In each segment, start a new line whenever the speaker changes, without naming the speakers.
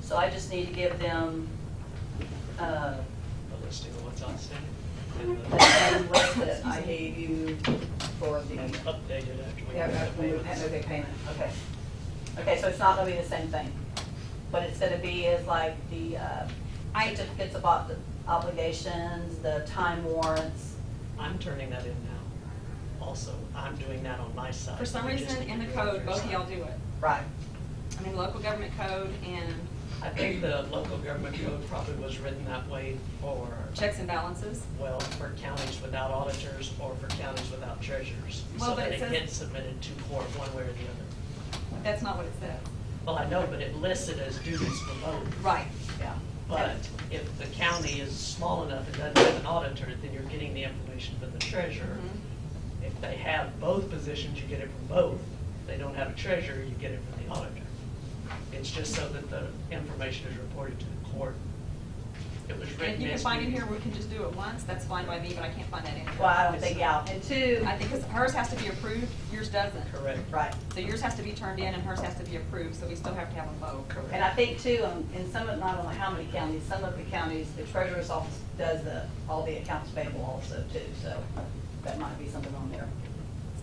So I just need to give them, uh,
A listing of what's on sale. and
the
the-
same list that I gave you for
and
the,
Update it after we
yeah,
get the
we moved
payments.
that, okay, payment, okay. Okay, so it's not gonna be the same thing. What it's gonna be is like the, uh,
I-
certificates of ob- obligations, the time warrants.
I'm turning that in now. Also, I'm doing that on my side.
For some
We just
reason,
need
in
to
the
do it
code,
for
both of
yourself.
y'all do it.
Right.
I mean, local government code and
I think the local government code probably was written that way for,
checks and balances.
well, for counties without auditors or for counties without treasurers.
Well,
So
but
that
it
it
says-
gets submitted to court one way or the other.
That's not what it says.
Well, I know, but it lists it as duties below.
Right.
Yeah.
But if the county is small enough and doesn't have an auditor, then you're getting the information from the treasurer.
Mhm.
If they have both positions, you get it from both. If they don't have a treasurer, you get it from the auditor. It's just so that the information is reported to the court. It was
And
written.
you can
as
find it
duties.
here, we can just do it once, that's fine by me, but I can't find that in here.
Well, I don't think, yeah, and two,
I think 'cause hers has to be approved, yours doesn't.
Correct.
right.
So yours has to be turned in and hers has to be approved, so we still have to have them both.
Correct.
And I think too, um, in some of, not only how many counties, some of the counties, the treasurer's office does the, all the accounts payable also too, so that might be something on there.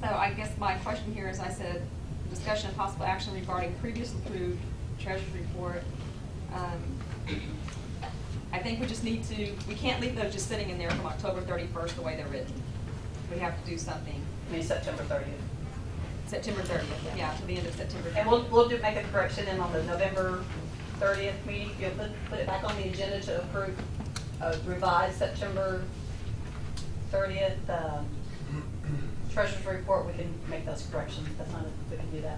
So I guess my question here is, I said, discussion of possible action regarding previous approved treasurer's report. Um, I think we just need to, we can't leave those just sitting in there from October thirty-first the way they're written. We have to do something,
I mean, September thirtieth.
September thirtieth, yeah, to the end of September.
And we'll, we'll do, make a correction in on the November thirtieth meeting, you'll put, put it back on the agenda to approve, uh, revised September thirtieth, um, treasurer's report, we can make those corrections, that's not, we can do that.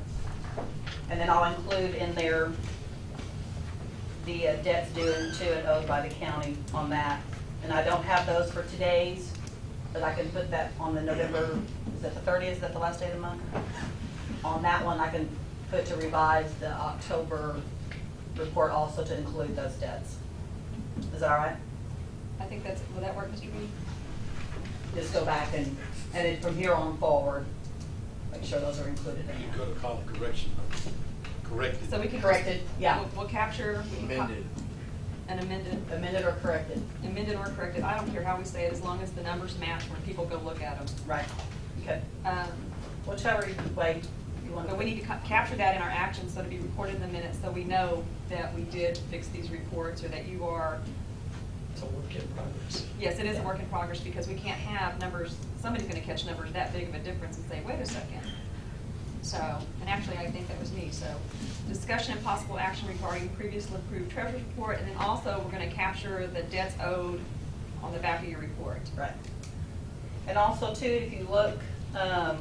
And then I'll include in there the uh, debts due and to and owed by the county on that. And I don't have those for today's, but I can put that on the November, is that the thirtieth, is that the last day of the month? On that one, I can put to revise the October report also to include those debts. Is that all right?
I think that's, will that work, Mr. Beatty?
Just go back and, and then from here on forward, make sure those are included in
You
there.
gotta call it correction, corrected.
So we can.
Corrected, yeah.
We'll- We'll capture. we can co-
Amended.
An amended,
Amended or corrected,
amended or corrected, I don't care how we say it, as long as the numbers match when people go look at them.
right, okay.
Um,
Whichever way you want to.
But we need to ca- capture that in our actions, so to be recorded in the minutes, so we know that we did fix these reports, or that you are,
It's a work in progress.
yes, it is a work in progress, because we can't have numbers, somebody's gonna catch numbers that big of a difference and say, wait a second. So, and actually, I think that was me, so, discussion and possible action regarding previously approved treasurer's report, and then also, we're gonna capture the debts owed on the back of your report.
Right. And also too, if you look, um,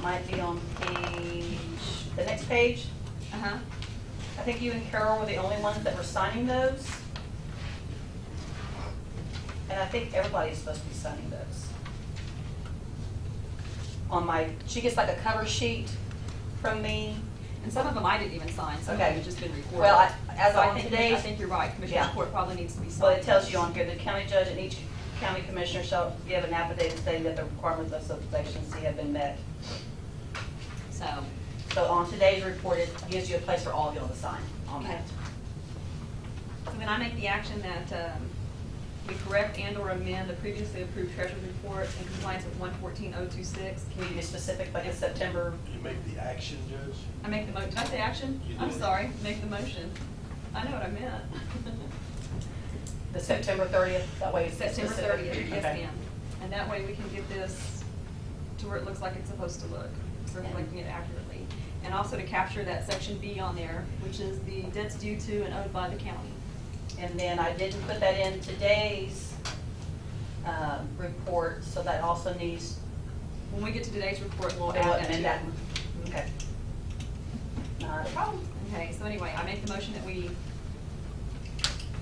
might be on page, the next page,
Uh-huh,
I think you and Carol were the only ones that were signing those. And I think everybody's supposed to be signing those. On my, she gets like a cover sheet from me.
and some of them I didn't even sign, some of
Okay.
them have just been recorded.
Well, I- as
So I
on
think-
today's-
I think you're right, Commissioner's
Yeah.
Court probably needs to be signed.
Well, it tells you on here, the county judge and each county commissioner shall give an affidavit stating that the requirements of subsection C have been met.
So,
So on today's report, it gives you a place for all of y'all to sign on
okay.
that.
So then I make the action that um, we correct and/or amend the previously approved treasurer's report in compliance with one fourteen oh two six.
Can you be specific, like in September?
You make the action, Judge?
I make the mo, did I say action?
You
I'm
did.
sorry, make the motion. I know what I meant.
The September 30th, that way it's
September
specific.
thirtieth, yes
Okay.
ma'am. And that way we can get this to where it looks like it's supposed to look, reflecting it accurately. And also to capture that section B on there, which is the debts due to and owed by the county.
And then I didn't put that in today's um, report, so that also needs,
When we get to today's report, we'll
we'll
add that to
amend that.
it.
Okay. Not a problem.
Okay, so anyway, I make the motion that we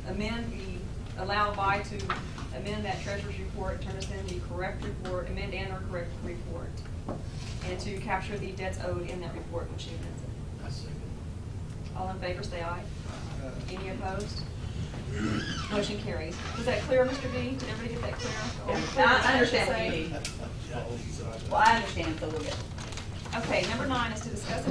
amend the, allow by to amend that treasurer's report, turn us in the correct report, amend and or correct report, and to capture the debts owed in that report when she amends it.
I second.
All in favor, say aye. Any opposed? Motion carries. Was that clear, Mr. B? Did everybody get that clear? Or
Yeah,
clear,
I
I should
understand what
say?
you need.
Yeah, I think so.
Well, I understand, so we'll get it.
Okay, number nine is to discuss and